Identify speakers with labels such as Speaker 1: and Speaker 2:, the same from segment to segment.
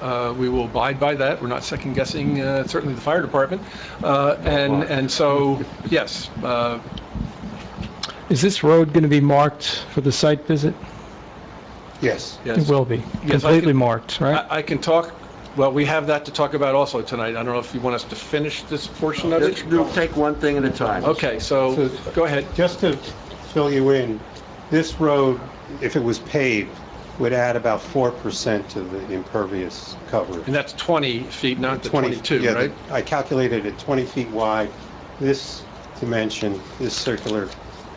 Speaker 1: Uh, We will abide by that. We're not second guessing, uh, certainly the fire department. Uh, And, and so, yes, uh,
Speaker 2: Is this road going to be marked for the site visit?
Speaker 3: Yes.
Speaker 2: It
Speaker 1: yes.
Speaker 2: will be,
Speaker 1: I
Speaker 2: completely
Speaker 1: can-
Speaker 2: marked, right?
Speaker 1: I I can talk, well, we have that to talk about also tonight. I don't know if you want us to finish this portion of
Speaker 3: Let's
Speaker 1: it?
Speaker 3: do- take one thing at a time.
Speaker 1: Okay, so, go ahead.
Speaker 4: Just to fill you in, this road, if it was paved, would add about 4% to the impervious coverage.
Speaker 1: And that's 20 feet, not the 22,
Speaker 4: yeah,
Speaker 1: right?
Speaker 4: I calculated it 20 feet wide, this dimension, this circular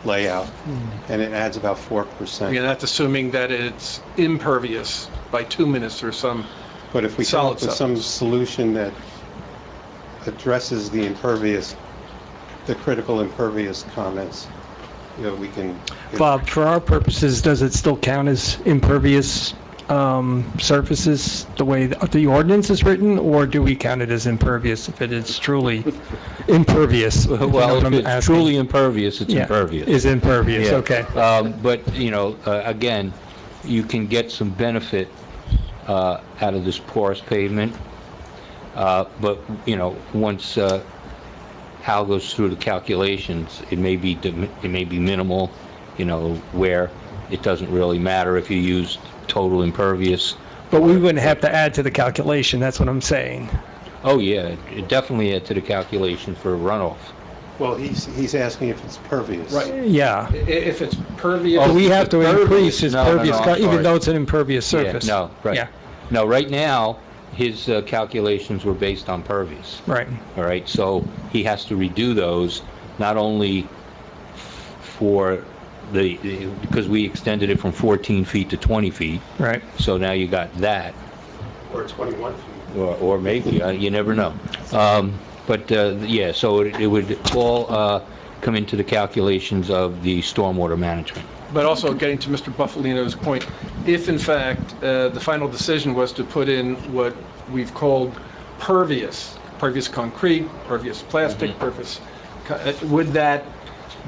Speaker 4: layout,
Speaker 1: Hmm.
Speaker 4: and it adds about 4%.
Speaker 1: Again, that's assuming that it's impervious by two minutes or some,
Speaker 4: But if we come
Speaker 1: Solid
Speaker 4: up with some solution that addresses the impervious, the critical impervious comments, you know, we can.
Speaker 2: Bob, for our purposes, does it still count as impervious um, surfaces the way th- the ordinance is written, or do we count it as impervious if it is truly impervious? if you know what
Speaker 5: Well, if
Speaker 2: I'm
Speaker 5: it's
Speaker 2: asking?
Speaker 5: truly impervious, it's
Speaker 2: Yeah,
Speaker 5: impervious.
Speaker 2: Is impervious,
Speaker 5: Yeah.
Speaker 2: okay.
Speaker 5: Um, But, you know, uh, again, you can get some benefit uh, out of this porous pavement, Uh, but, you know, once uh, Hal goes through the calculations, it may be, dim- it may be minimal, you know, where it doesn't really matter if you use total impervious.
Speaker 2: But we wouldn't have to add to the calculation, that's what I'm saying.
Speaker 5: Oh, yeah, it definitely add to the calculation for runoff.
Speaker 4: Well, he's, he's asking if it's pervious.
Speaker 1: Right.
Speaker 2: Yeah.
Speaker 1: I- if it's pervious.
Speaker 2: We have to
Speaker 5: Oh, Impervious-
Speaker 2: increase his
Speaker 5: no, no, no,
Speaker 2: pervious,
Speaker 5: I'm
Speaker 2: co- even
Speaker 5: sorry.
Speaker 2: though it's an impervious
Speaker 5: Yeah,
Speaker 2: surface.
Speaker 5: No,
Speaker 2: Yeah,
Speaker 5: right. No, right now, his uh, calculations were based on pervious,
Speaker 2: right.
Speaker 5: all right? So he has to redo those, not only for the, because we extended it from 14 feet to 20 feet,
Speaker 2: Right.
Speaker 5: so now you got that,
Speaker 4: Or 21 feet.
Speaker 5: or or maybe, uh, you never know. Um, But, uh, yeah, so it it would all uh, come into the calculations of the stormwater management.
Speaker 1: But also getting to Mr. Buffalino's point, if in fact, uh, the final decision was to put in what we've called pervious, pervious concrete, pervious
Speaker 4: Mm-hmm.
Speaker 1: plastic, pervious, co- uh, would that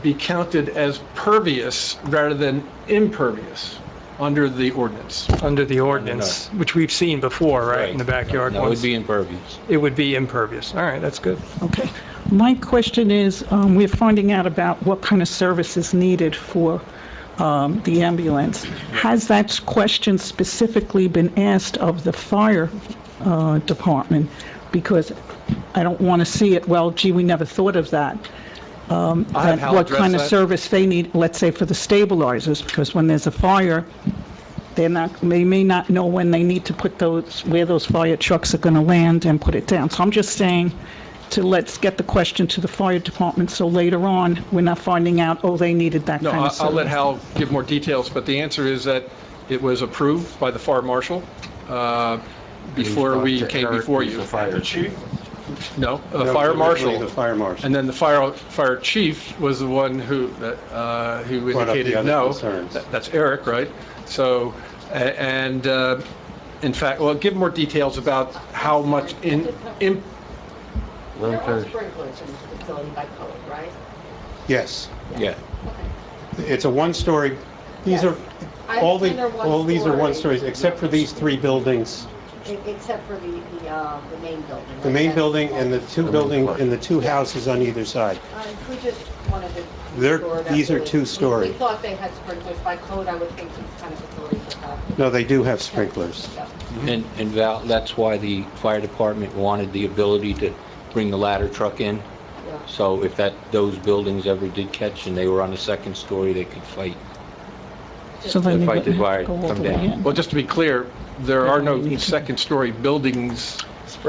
Speaker 1: be counted as pervious rather than impervious under the ordinance?
Speaker 2: Under the ordinance, which we've seen before, right, in the backyard
Speaker 5: No, it would
Speaker 2: ones.
Speaker 5: be impervious.
Speaker 2: It would be impervious. All right, that's good.
Speaker 6: Okay. My question is, um, we're finding out about what kind of service is needed for um, the ambulance. Has that question specifically been asked of the fire uh, department? Because I don't want to see it, well, gee, we never thought of that. Um,
Speaker 1: I have
Speaker 6: that
Speaker 1: Hal
Speaker 6: What
Speaker 1: address
Speaker 6: kind of
Speaker 1: that.
Speaker 6: service they need, let's say for the stabilizers, because when there's a fire, they're not, they may not know when they need to put those, where those fire trucks are going to land and put it down. So I'm just saying to let's get the question to the fire department, so later on, we're not finding out, oh, they needed that
Speaker 1: No,
Speaker 6: kind of
Speaker 1: I-
Speaker 6: service.
Speaker 1: I'll let Hal give more details, but the answer is that it was approved by the fire marshal uh, before we came before you.
Speaker 3: The fire chief.
Speaker 1: No, a
Speaker 4: No,
Speaker 1: fire marshal.
Speaker 4: The fire marshal.
Speaker 1: And then the fire, fire chief was the one who, uh, who
Speaker 4: Brought up the
Speaker 1: indicated
Speaker 4: other
Speaker 1: no.
Speaker 4: concerns.
Speaker 1: That- That's Eric, right? So, a- and uh, in fact, well, give more details about how much in, in-
Speaker 7: There are sprinklers in the facility by code, right?
Speaker 4: Yes.
Speaker 5: Yeah.
Speaker 4: It's a one-story, these are,
Speaker 7: I
Speaker 4: all
Speaker 7: understand
Speaker 4: the,
Speaker 7: they're
Speaker 4: all these are one
Speaker 7: one-story.
Speaker 4: stories, except for these three buildings.
Speaker 7: E- Except for the, the, uh, the main building.
Speaker 4: The main building and the two building, and the two houses on either side.
Speaker 7: Uh, We just wanted to.
Speaker 4: They're-
Speaker 7: explore that
Speaker 4: these are
Speaker 7: really.
Speaker 4: two-story.
Speaker 7: We we thought they had sprinklers by code, I would think these kind of facilities would have.
Speaker 4: No, they do have sprinklers. Uh,
Speaker 7: Yeah.
Speaker 5: And, and Val, that's why the fire department wanted the ability to bring the ladder truck in.
Speaker 7: Yeah.
Speaker 5: So if that, those buildings ever did catch and they were on the second story, they could fight.
Speaker 6: So they need
Speaker 5: Fight the
Speaker 6: to
Speaker 5: fire,
Speaker 6: go all
Speaker 5: come
Speaker 6: the way
Speaker 5: down.
Speaker 6: in.
Speaker 1: well, just to be clear, there are no second-story buildings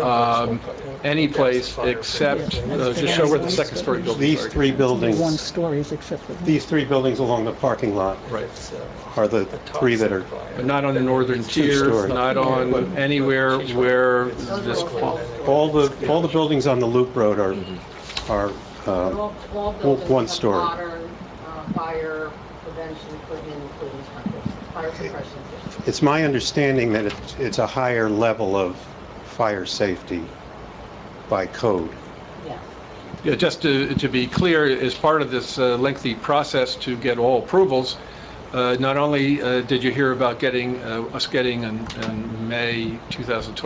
Speaker 1: um, anyplace except, uh, just show where the second-story buildings
Speaker 4: These
Speaker 1: are.
Speaker 4: three
Speaker 6: One
Speaker 4: buildings,
Speaker 6: stories except for that.
Speaker 4: these three buildings along the parking lot
Speaker 1: Right.
Speaker 5: uh,
Speaker 4: are the three that are,
Speaker 1: But not on the northern tier,
Speaker 4: two-story.
Speaker 1: not on anywhere where this,
Speaker 7: Those are all-
Speaker 4: all the, all the buildings on the Loop Road are, are,
Speaker 7: they're
Speaker 4: uh,
Speaker 7: all- all buildings
Speaker 4: one
Speaker 7: have
Speaker 4: story.
Speaker 7: Modern uh, fire prevention equipment, including sprinklers, fire suppression systems.
Speaker 4: it's my understanding that it- it's a higher level of fire safety by code.
Speaker 7: Yeah.
Speaker 1: Yeah, just to, to be clear, as part of this uh, lengthy process to get all approvals, uh, not only uh, did you hear about getting, uh, us getting in in May 2020.